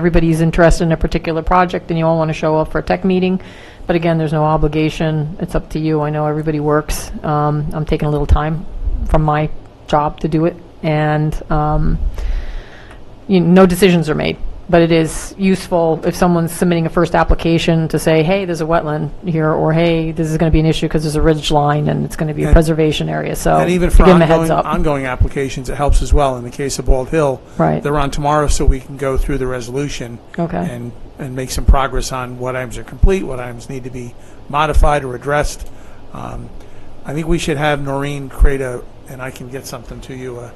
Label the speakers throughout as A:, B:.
A: everybody's interested in a particular project and you all want to show up for a tech meeting. But again, there's no obligation. It's up to you. I know everybody works. Um, I'm taking a little time from my job to do it. And, um, you, no decisions are made, but it is useful if someone's submitting a first application to say, hey, there's a wetland here, or hey, this is going to be an issue because there's a ridge line and it's going to be a
B: And-
A: preservation area, so.
B: And even
A: to
B: for
A: give 'em a heads
B: ongoing,
A: up.
B: ongoing applications, it helps as well. In the case of Bald Hill,
A: Right,
B: they're on tomorrow, so we can go through the resolution
A: okay,
B: and, and make some progress on what items are complete, what items need to be modified or addressed. Um, I think we should have Noreen create a, and I can get something to you, a,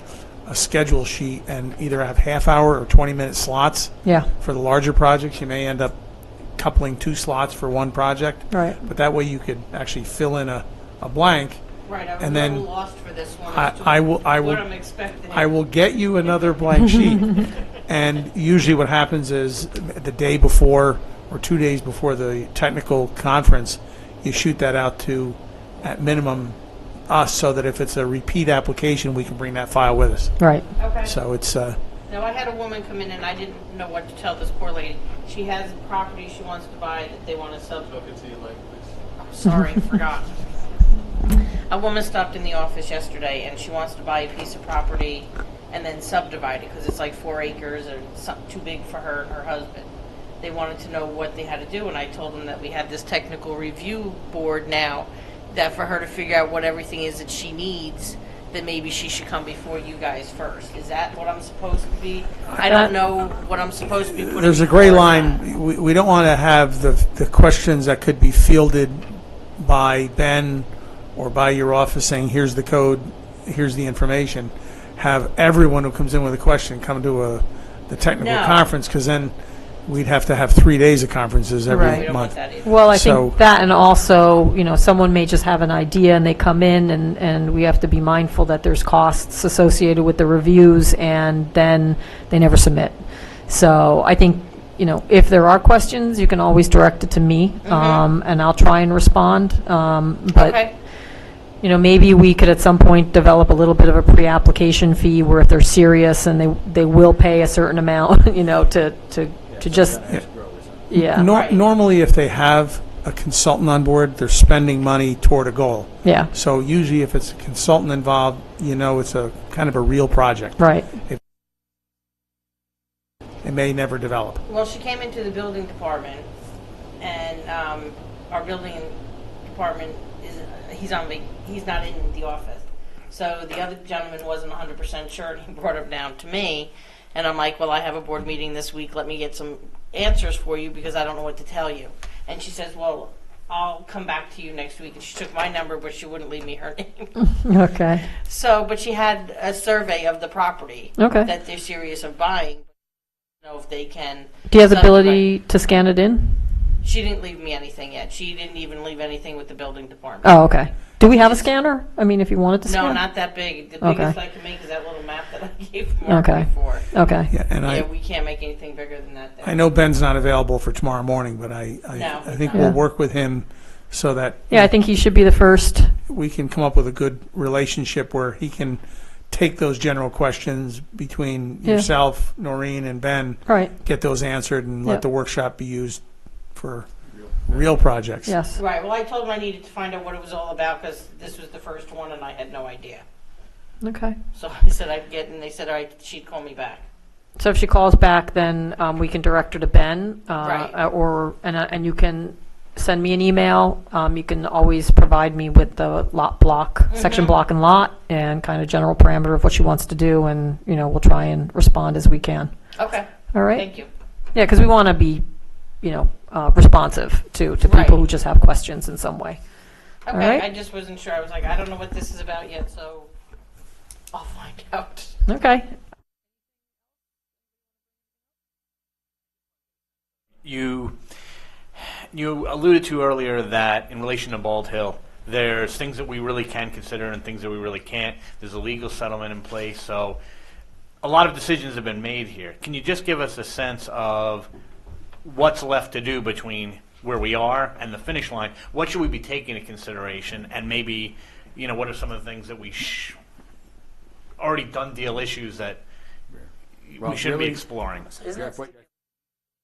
B: a schedule sheet and either have half-hour or 20-minute slots
A: yeah,
B: for the larger projects. You may end up coupling two slots for one project,
A: right.
B: but that way you could actually fill in a, a blank.
C: Right, I was
B: And
C: a
B: then
C: little lost for this one.
B: I,
C: as to
B: I will, I
C: What
B: will
C: I'm expecting.
B: I will get you another blank sheet. And usually what happens is the day before or two days before the technical conference, you shoot that out to, at minimum, us, so that if it's a repeat application, we can bring that file with us.
A: Right,
C: Okay.
B: So it's, uh,
C: Now, I had a woman come in and I didn't know what to tell this poor lady. She has property she wants to buy that they want to sell. Talk into I'm sorry, forgot. A woman stopped in the office yesterday and she wants to buy a piece of property and then subdivide it because it's like four acres or some, too big for her and her husband. They wanted to know what they had to do and I told them that we had this technical review board now that for her to figure out what everything is that she needs, that maybe she should come before you guys first. Is that what I'm supposed to be? I don't know what I'm supposed to be putting.
B: there's a gray
C: before that.
B: line. We, we don't want to have the, the questions that could be fielded by Ben or by your office saying, here's the code, here's the information. Have everyone who comes in with a question come to a, the technical
C: No.
B: conference, because then we'd have to have three days of conferences
A: Right.
C: We
B: every
C: don't want
B: month.
C: that either.
A: well, I
B: So-
A: think that, and also, you know, someone may just have an idea and they come in, and, and we have to be mindful that there's costs associated with the reviews, and then they never submit. So I think, you know, if there are questions, you can always direct it to me, um, and I'll try and respond, um, but
C: Okay.
A: you know, maybe we could at some point develop a little bit of a pre-application fee where if they're serious and they, they will pay a certain amount, you know, to, to, to just, yeah,
B: Nor-
C: Right.
B: Normally, if they have a consultant on board, they're spending money toward a goal.
A: yeah,
B: So usually, if it's a consultant involved, you know it's a kind of a real project.
A: right,
B: It may never develop.
C: Well, she came into the building department, and um, our building department is, he's on, vac- he's not in the office. So the other gentleman wasn't 100% sure, and he brought him down to me. And I'm like, well, I have a board meeting this week, let me get some answers for you, because I don't know what to tell you. And she says, well, I'll come back to you next week. And she took my number, but she wouldn't leave me her name.
A: okay,
C: So, but she had a survey of the property
A: okay.
C: that they're serious of buying. Know if they can.
A: Do you have the
C: subdivide.
A: ability to scan it in?
C: She didn't leave me anything yet. She didn't even leave anything with the building department.
A: Oh, okay. Do we have a scanner? I mean, if you wanted to scan?
C: No, not that big. The
A: Okay.
C: biggest I can make is that little map that I gave Mark
A: Okay.
C: before.
A: Okay,
B: Yeah, and I.
C: Yeah, we can't make anything bigger than that.
B: I
C: there.
B: know Ben's not available for tomorrow morning, but I,
C: No,
B: I, I
C: he's
B: think
C: not.
B: we'll
A: Yeah.
B: work with him so that
A: yeah, I think he should be the first,
B: we can come up with a good relationship where he can take those general questions between
A: Yeah.
B: yourself, Noreen, and Ben,
A: right,
B: get those answered, and
A: Yeah.
B: let the workshop be used for real projects.
A: yes,
C: Right, well, I told him I needed to find out what it was all about because this was the first one and I had no idea.
A: okay.
C: So I said I'd get, and they said, all right, she'd call me back.
A: So if she calls back, then um, we can direct her to Ben, uh,
C: Right.
A: uh, or, and uh, and you can send me an email. Um, You can always provide me with the lot block, section
C: Mhm.
A: block and lot, and kind of general parameter of what she wants to do, and, you know, we'll try and respond as we can.
C: Okay,
A: All right?
C: thank you.
A: Yeah, because we want to be, you know, uh, responsive to, to people who
C: Right.
A: just have questions in some way. All
C: Okay,
A: right.
C: I just wasn't sure. I was like, I don't know what this is about yet, so I'll find out.
A: Okay.
D: You you alluded to earlier that in relation to Bald Hill, there's things that we really can consider and things that we really can't. There's a legal settlement in place, so a lot of decisions have been made here. Can you just give us a sense of what's left to do between where we are and the finish line? What should we be taking into consideration, and maybe you know what are some of the things that we sh- already done deal issues that
E: Well,
D: we should
E: really-
D: be exploring?
E: Jeff, what-